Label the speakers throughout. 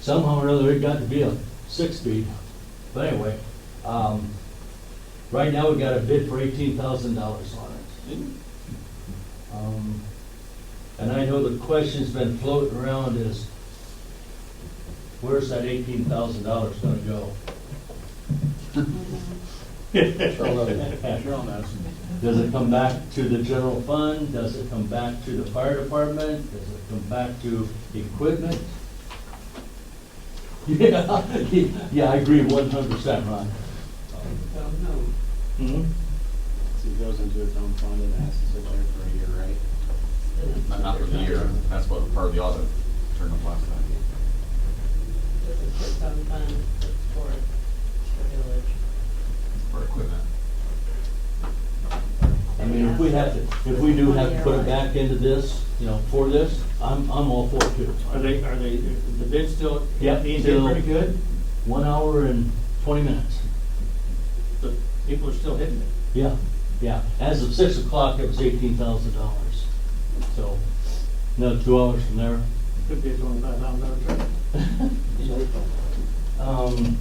Speaker 1: somehow or another, it got to be a six-speed. But anyway, um, right now, we got a bid for eighteen thousand dollars on it. Um, And I know the question's been floating around is, where's that eighteen thousand dollars gonna go?
Speaker 2: Cheryl knows.
Speaker 1: Does it come back to the general fund? Does it come back to the fire department? Does it come back to equipment? Yeah, yeah, I agree one hundred percent, Ron. Mhm.
Speaker 2: So it goes into its own fund and has to sit there for a year, right?
Speaker 3: Not not for the year, that's what part of the audit turned up last time.
Speaker 4: This is some fun for the village.
Speaker 3: for equipment.
Speaker 1: I mean, if we have to, if we do have to put it back into this, you know, for this, I'm, I'm all for it too.
Speaker 2: Are they, are they, the bid still,
Speaker 1: Yep,
Speaker 2: these
Speaker 1: still-
Speaker 2: are pretty good?
Speaker 1: One hour and twenty minutes.
Speaker 2: The people are still hitting it.
Speaker 1: Yeah, yeah. As of six o'clock, it was eighteen thousand dollars. So, another two hours from there.
Speaker 2: Could be a twenty-five thousand dollar truck.
Speaker 1: Um,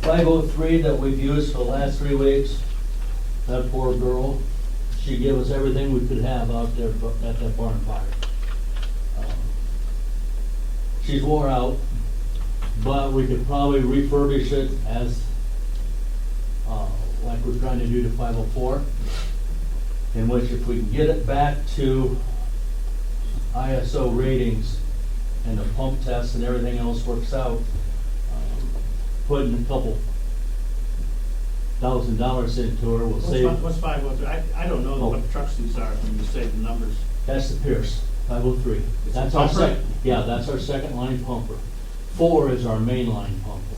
Speaker 1: five oh three that we've used for the last three weeks, that poor girl, she gave us everything we could have out there bu- at that barn fire. Um, She's wore out, but we could probably refurbish it as, uh, like we're trying to do to five oh four. In which if we can get it back to ISO ratings, and the pump test and everything else works out, um, putting a couple thousand dollars into her will save.
Speaker 2: What's five, what's, I, I don't know what the trucks these are when you say the numbers.
Speaker 1: That's the Pierce, five oh three.
Speaker 2: It's
Speaker 1: That's
Speaker 2: a
Speaker 1: our
Speaker 2: pumper?
Speaker 1: second, yeah, that's our second line pumper. Four is our main line pumper,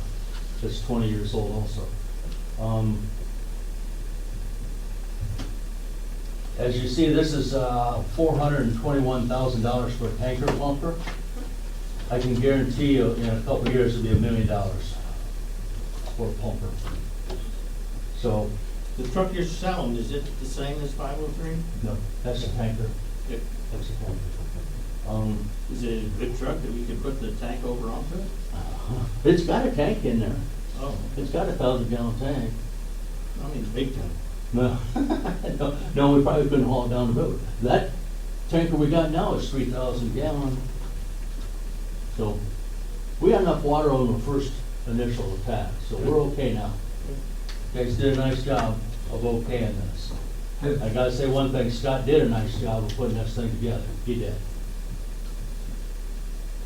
Speaker 1: that's twenty years old also. Um, As you see, this is, uh, four hundred and twenty-one thousand dollars for a tanker pumper. I can guarantee you, in a couple of years, it'll be a million dollars for a pumper. So,
Speaker 2: The truck you're selling, is it the same as five oh three?
Speaker 1: no, that's a tanker,
Speaker 2: It,
Speaker 1: that's a pumper. Um,
Speaker 2: is it a good truck that we could put the tank over onto? it?
Speaker 1: It's got a tank in there.
Speaker 2: Oh,
Speaker 1: It's got a thousand gallon tank.
Speaker 2: I mean, big tank.
Speaker 1: No, no, no, we probably couldn't haul it down the road. That tanker we got now is three thousand gallon. So, we got enough water on the first initial attack, so we're okay now. You Guys did a nice job of okaying this. I gotta say one thing, Scott did a nice job of putting this thing together. He did.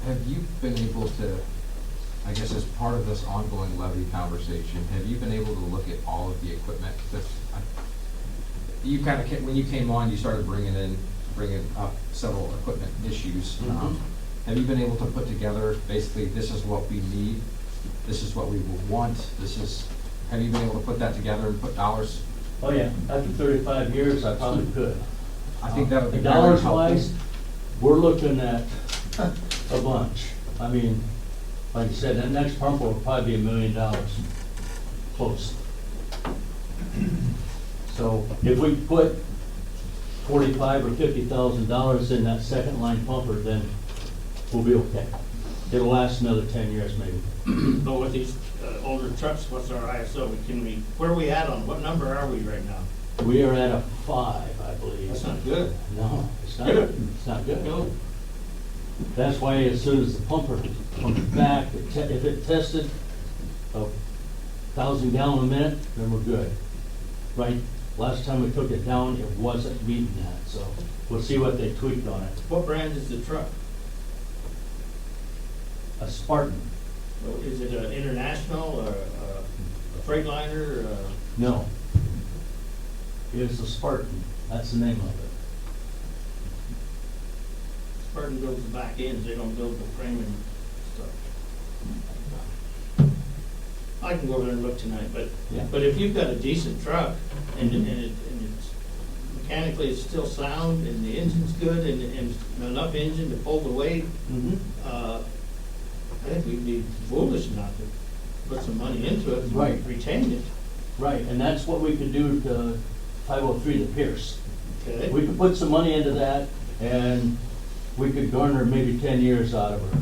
Speaker 5: Have you been able to, I guess as part of this ongoing levy conversation, have you been able to look at all of the equipment? 'Cause I- You kind of, when you came on, you started bringing in, bringing up several equipment issues. Um, Have you been able to put together, basically, this is what we need, this is what we will want, this is, have you been able to put that together and put dollars?
Speaker 1: Oh, yeah, after thirty-five years, I probably could.
Speaker 5: I think that would be very
Speaker 1: Dollars
Speaker 5: helpful.
Speaker 1: wise, we're looking at a bunch. I mean, like I said, that next pump will probably be a million dollars, close. So if we put forty-five or fifty thousand dollars in that second line pumper, then we'll be okay. It'll last another ten years maybe.
Speaker 2: But with these uh, older trucks, what's our ISO? Can we, where are we at on, what number are we right now?
Speaker 1: We are at a five, I believe.
Speaker 2: That's not good.
Speaker 1: No, it's not, it's not good.
Speaker 2: No.
Speaker 1: That's why as soon as the pumper comes back, it te- if it tested a thousand gallon a minute, then we're good. Right, last time we took it down, it wasn't meeting that, so we'll see what they tweaked on it.
Speaker 2: What brand is the truck?
Speaker 1: A Spartan,
Speaker 2: Is it an international or a- a Freightliner or a-
Speaker 1: no. It's a Spartan, that's the name of it.
Speaker 2: Spartan builds the back ends, they don't build the frame and stuff. I can go over there and look tonight, but,
Speaker 1: Yeah.
Speaker 2: but if you've got a decent truck and, and it, and it's mechanically it's still sound and the engine's good and, and enough engine to pull the weight,
Speaker 1: Mm-hmm.
Speaker 2: uh, I think we'd be foolish not to put some money into it. and
Speaker 1: Right.
Speaker 2: Retain it,
Speaker 1: Right, and that's what we could do to five oh three to Pierce.
Speaker 2: okay?
Speaker 1: We could put some money into that, and we could garner maybe ten years out of her.